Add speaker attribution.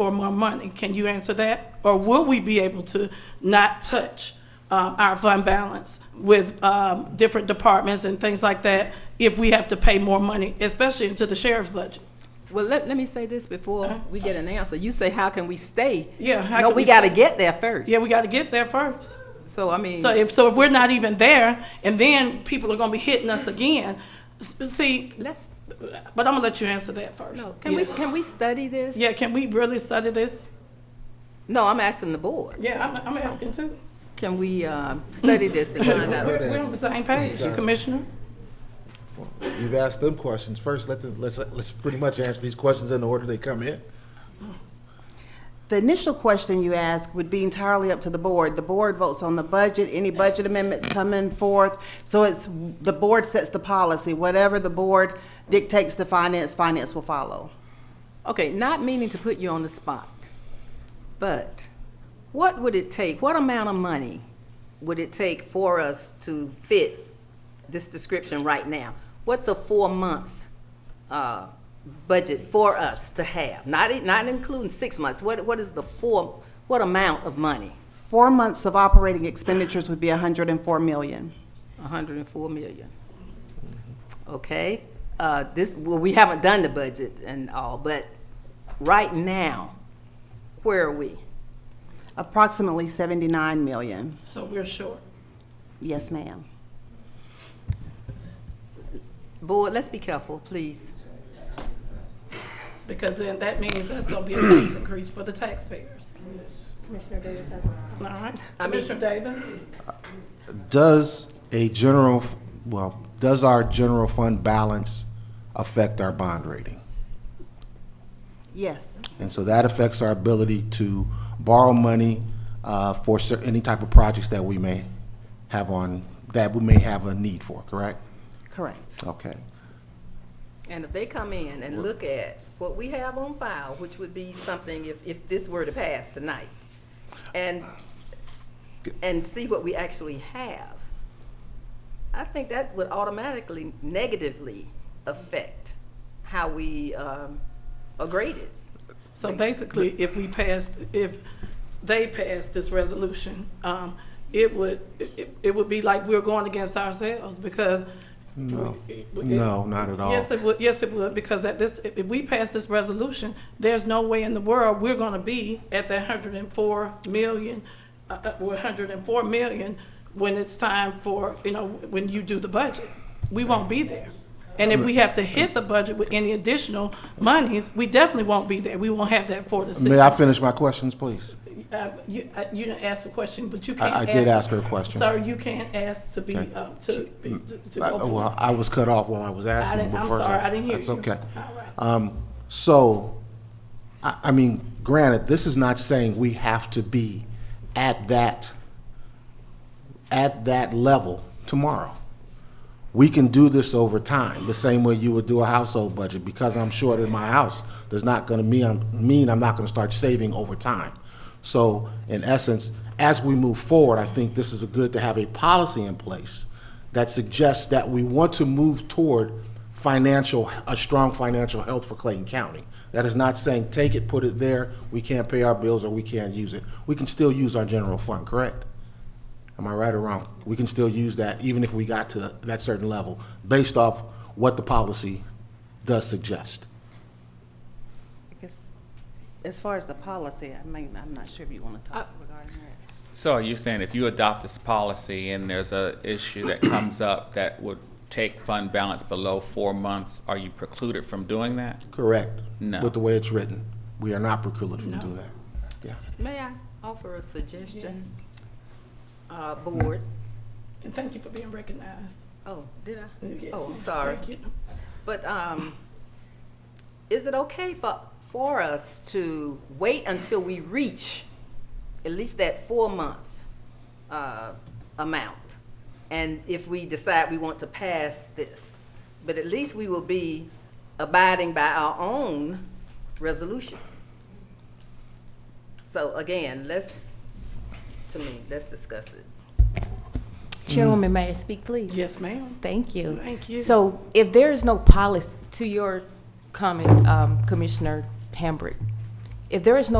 Speaker 1: for more money. Can you answer that? Or will we be able to not touch um, our fund balance with um, different departments and things like that if we have to pay more money, especially into the sheriff's budget?
Speaker 2: Well, let, let me say this before we get an answer. You say, how can we stay?
Speaker 1: Uh-huh. Yeah, how
Speaker 2: No,
Speaker 1: can
Speaker 2: we
Speaker 1: we
Speaker 2: gotta
Speaker 1: stay?
Speaker 2: get there first.
Speaker 1: Yeah, we got to get there first.
Speaker 2: So, I mean,
Speaker 1: So if, so if we're not even there, and then people are going to be hitting us again, s- see,
Speaker 2: let's,
Speaker 1: but I'm going to let you answer that first.
Speaker 2: no, can we,
Speaker 1: Yeah.
Speaker 2: can we study this?
Speaker 1: Yeah, can we really study this?
Speaker 2: No, I'm asking the board.
Speaker 1: Yeah, I'm, I'm asking too.
Speaker 2: Can we, um, study this and find
Speaker 1: We're,
Speaker 2: out?
Speaker 1: we're on the same page,
Speaker 3: Yeah.
Speaker 1: Commissioner.
Speaker 3: You've asked them questions. First, let them, let's, let's pretty much answer these questions in the order they come in.
Speaker 4: The initial question you asked would be entirely up to the board. The board votes on the budget, any budget amendments coming forth. So it's, the board sets the policy. Whatever the board dictates to finance, finance will follow.
Speaker 2: Okay, not meaning to put you on the spot, but what would it take, what amount of money would it take for us to fit this description right now? What's a four-month uh, budget for us to have? Not, not including six months, what, what is the four, what amount of money?
Speaker 4: Four months of operating expenditures would be 104 million.
Speaker 2: 104 million. Okay, uh, this, well, we haven't done the budget and all, but right now, where are we?
Speaker 4: Approximately 79 million.
Speaker 1: So we're short.
Speaker 4: Yes, ma'am.
Speaker 2: Board, let's be careful, please.
Speaker 1: Because then that means that's gonna be a tax increase for the taxpayers. Commissioner Davis All right, Commissioner Davis?
Speaker 5: Does a general, well, does our general fund balance affect our bond rating?
Speaker 4: Yes.
Speaker 5: And so that affects our ability to borrow money uh, for cer- any type of projects that we may have on, that we may have a need for, correct?
Speaker 4: Correct.
Speaker 5: Okay.
Speaker 2: And if they come in and look at what we have on file, which would be something if, if this were to pass tonight, and, and see what we actually have, I think that would automatically negatively affect how we um, are graded.
Speaker 1: So basically, if we passed, if they passed this resolution, um, it would, it, it would be like we're going against ourselves because.
Speaker 5: No.
Speaker 1: it- it-
Speaker 5: No, not at all.
Speaker 1: Yes, it would, yes, it would, because at this, if if we pass this resolution, there's no way in the world we're gonna be at that hundred and four million, uh, uh, one hundred and four million when it's time for, you know, when you do the budget. We won't be there. And if we have to hit the budget with any additional monies, we definitely won't be there. We won't have that four to six.
Speaker 5: May I finish my questions, please?
Speaker 1: Uh, You, uh, you didn't ask the question, but you can't
Speaker 5: I- I
Speaker 1: ask.
Speaker 5: did ask her a question.
Speaker 1: Sir, you can't ask to be,
Speaker 5: Okay.
Speaker 1: uh, to, be- to- to
Speaker 5: I-
Speaker 1: go.
Speaker 5: Well, I was cut off while I was asking.
Speaker 1: didn't-
Speaker 5: but
Speaker 1: I'm
Speaker 5: first
Speaker 1: sorry, I didn't hear
Speaker 5: That's
Speaker 1: you.
Speaker 5: okay.
Speaker 1: All right.
Speaker 5: Um, So, I, I mean, granted, this is not saying we have to be at that, at that level tomorrow. We can do this over time, the same way you would do a household budget, because I'm short in my house, does not gonna mean, I'm- mean I'm not gonna start saving over time. So, in essence, as we move forward, I think this is a good to have a policy in place that suggests that we want to move toward financial, a strong financial health for Clayton County. That is not saying, take it, put it there, we can't pay our bills, or we can't use it. We can still use our general fund, correct? Am I right or wrong? We can still use that even if we got to that certain level, based off what the policy does suggest.
Speaker 4: As far as the policy, I mean, I'm not sure if you want to talk regarding that.
Speaker 6: So are you saying if you adopt this policy and there's a issue that comes up that would take fund balance below four months, are you precluded from doing that?
Speaker 5: Correct?
Speaker 6: No.
Speaker 5: With the way it's written, we are not precluded from doing that. Yeah.
Speaker 2: May I offer a suggestion? Uh, Board,
Speaker 1: And thank you for being recognized.
Speaker 2: oh, did I?
Speaker 1: Yes,
Speaker 2: Oh, I'm
Speaker 1: ma'am.
Speaker 2: sorry.
Speaker 1: Thank you.
Speaker 2: But um, is it okay for, for us to wait until we reach at least that four-month uh, amount? And if we decide we want to pass this, but at least we will be abiding by our own resolution. So again, let's, to me, let's discuss it.
Speaker 7: Chairwoman, may I speak, please?
Speaker 1: Yes, ma'am.
Speaker 7: Thank you.
Speaker 1: Thank you.
Speaker 7: So if there is no policy, to your comment, um, Commissioner Hambrick, If there is no